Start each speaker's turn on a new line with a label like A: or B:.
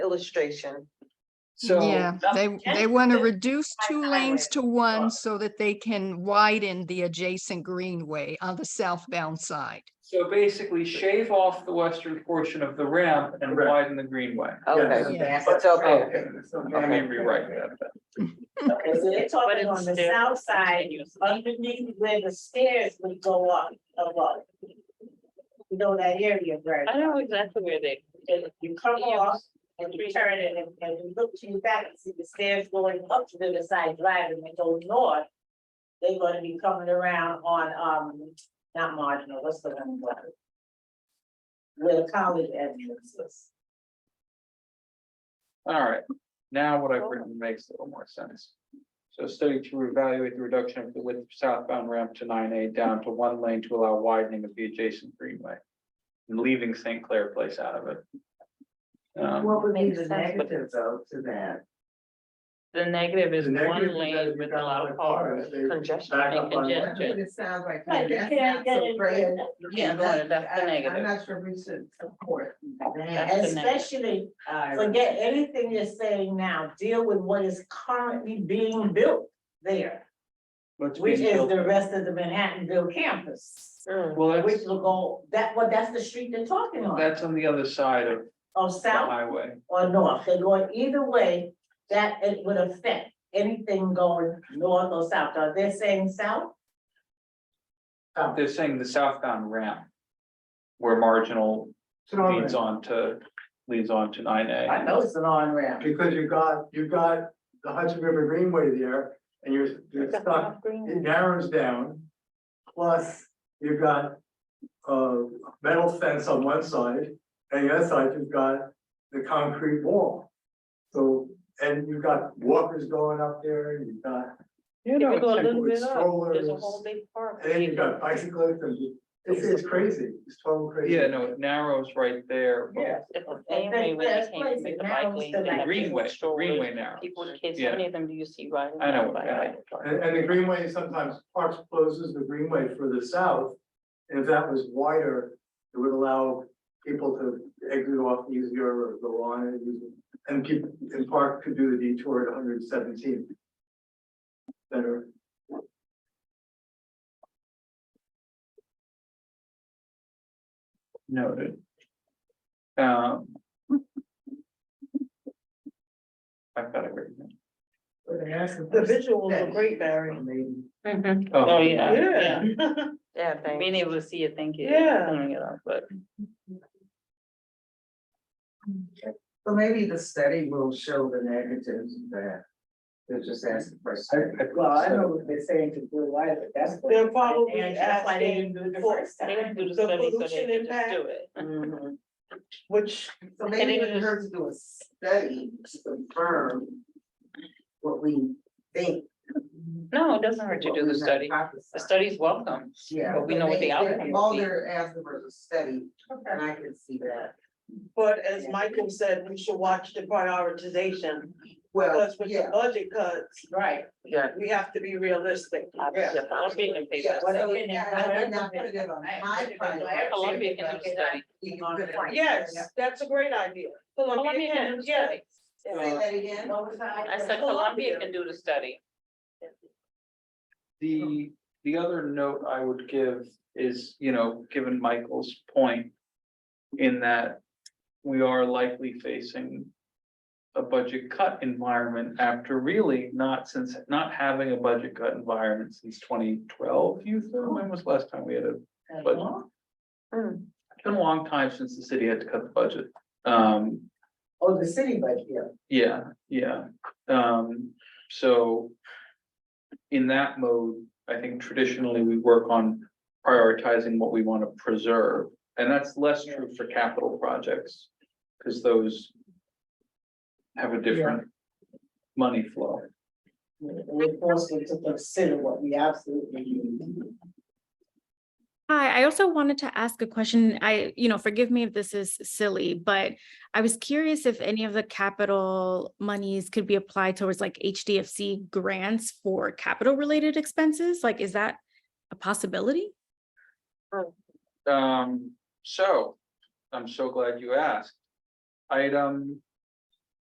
A: illustration.
B: So.
C: Yeah, they, they want to reduce two lanes to
B: Uh,
C: one so that they can widen the adjacent greenway on the southbound side.
B: So basically shave off the western portion of the ramp and
D: Correct.
B: widen the greenway.
A: Okay,
C: Yes.
A: it's okay.
B: Okay, Let me rewrite that. then.
E: Okay, so they're talking on the south side, underneath where the stairs would go up, go up. You know that area, right?
F: I don't know exactly where they.
E: You come off and you turn it and, and you look to your back and see the stairs going up to the side drive and they go north. They're gonna be coming around on, um, not marginal, what's the one? Where the college entrance is.
B: All right, now what I've written makes a little more sense. So study to evaluate the reduction of the width of southbound ramp to nine A down to one lane to allow widening of the adjacent greenway. And leaving St. Clair Place out of it. Um,
D: What would be the
F: Makes sense.
D: negative though to that?
F: The negative is
D: The negative is
F: one
D: that
F: lane
D: if you
F: with a
D: got
F: lot
D: one
F: of
D: car,
F: cars,
D: they
F: congestion
D: back
F: and
D: up on one.
F: congestion.
G: It sounds like.
E: Right, you
G: that's
E: can't
G: not
E: get
G: so
E: in
G: great.
E: there.
F: Yeah,
G: that-
F: that's the
G: I-
F: negative.
G: I'm not sure we should support
F: That's
G: that.
F: the negative.
E: Especially
D: I-
E: Forget anything you're saying now, deal with what is currently being built there,
B: what's
E: which
B: being
E: is
B: built-
E: the rest of the Manhattanville campus.
F: Mm.
B: Well,
E: Which
B: that's,
E: will go, that, well, that's the street they're talking on,
B: that's on the other side of
E: or
B: the
E: south
B: highway.
E: or north, they're going either way, that it would affect anything going north or south, are they saying south?
B: They're saying the southbound ramp. Where marginal
D: It's an
B: leads
D: on-ramp,
B: on to, leads on to nine A.
E: I know it's an on-ramp.
D: Because you got, you got the Hudson River Greenway there and you're, you're stuck, it narrows down. Plus, you've got a metal fence on one side and the other side, you've got the concrete wall. So, and you've got walkers going up there, and you've got,
B: You
F: If you go a
B: it's-
F: little bit up, there's a
D: strollers,
F: whole big park.
D: and then you've got bicyclists and you- it's, it's crazy, it's total crazy.
B: Yeah, no, it narrows right there. but-
F: It's the
E: I
F: same way
E: think
F: when they
E: that's
F: came
E: crazy.
F: with the
E: Now
F: bike
E: it's the
F: lanes. they have
B: The
E: like
B: greenway,
F: people
B: the
F: shoulders,
B: greenway narrows.
F: People, kids,
B: Yeah.
F: how many of them do you see riding?
B: I know
F: around
B: what-
F: by
B: yeah.
F: bike?
D: And, and the greenway, sometimes Parks closes the greenway for the south. And if that was wider, it would allow people to exit off easier or go on and use it. And keep, and Park could do the detour at hundred and seventeen. Better.
B: Noted. Um. I've got it written.
G: The
E: visuals
G: are great,
E: Barry.
F: Mhm.
B: Oh.
F: Oh, yeah, yeah.
A: Yeah, thank
F: Being able to see it, thank you.
E: Yeah.
F: Pulling it off, but
G: So maybe the study will show the negatives of that. They'll just ask the person.
B: Oh.
D: Well, I know
G: what they're saying to do life, but that's.
E: They're probably asking for-
F: they didn't do the
E: The
F: study, so they
E: pollution
F: could just
E: impact.
F: do it.
A: you.
E: Which
G: So maybe it would hurt to do a study to confirm what we think.
F: No, it doesn't hurt to do the study. The study's welcome.
G: Yeah.
F: but we know what the outcome will
G: All
F: be.
G: they're asking for is a study, and I can see that.
H: But as Michael said, we should watch the prioritization,
G: Well,
H: because with the
G: yeah.
H: budget cuts,
E: Right.
A: Yeah.
H: we have to be realistic.
F: Obviously, Columbia can pay
G: Yeah,
F: that
G: so
F: study.
G: it- I would not put it on my priority.
F: Columbia can do the study.
G: You could have-
H: Yes, that's a great idea.
F: Columbia can do the
H: yeah.
F: study.
G: Say that again.
F: I said Columbia can do the study.
B: The, the other note I would give is, you know, given Michael's point. In that we are likely facing. A budget cut environment after really not since, not having a budget cut environment since twenty twelve, you, said? when was the last time we had a But- It's been a long time since the city had to cut the budget. Um,
G: Oh, the city budget, yeah.
B: yeah, yeah, um, so. In that mode, I think traditionally we work on prioritizing what we want to preserve, and that's less true for capital projects. Cause those. Have a different money flow.
G: We're forced to consider what we absolutely need.
I: Hi, I also wanted to ask a question. I, you know, forgive me if this is silly, but I was curious if any of the capital monies could be applied towards like HDFC grants for capital related expenses? Like, is that a possibility?
B: Um, so, I'm so glad you asked. Item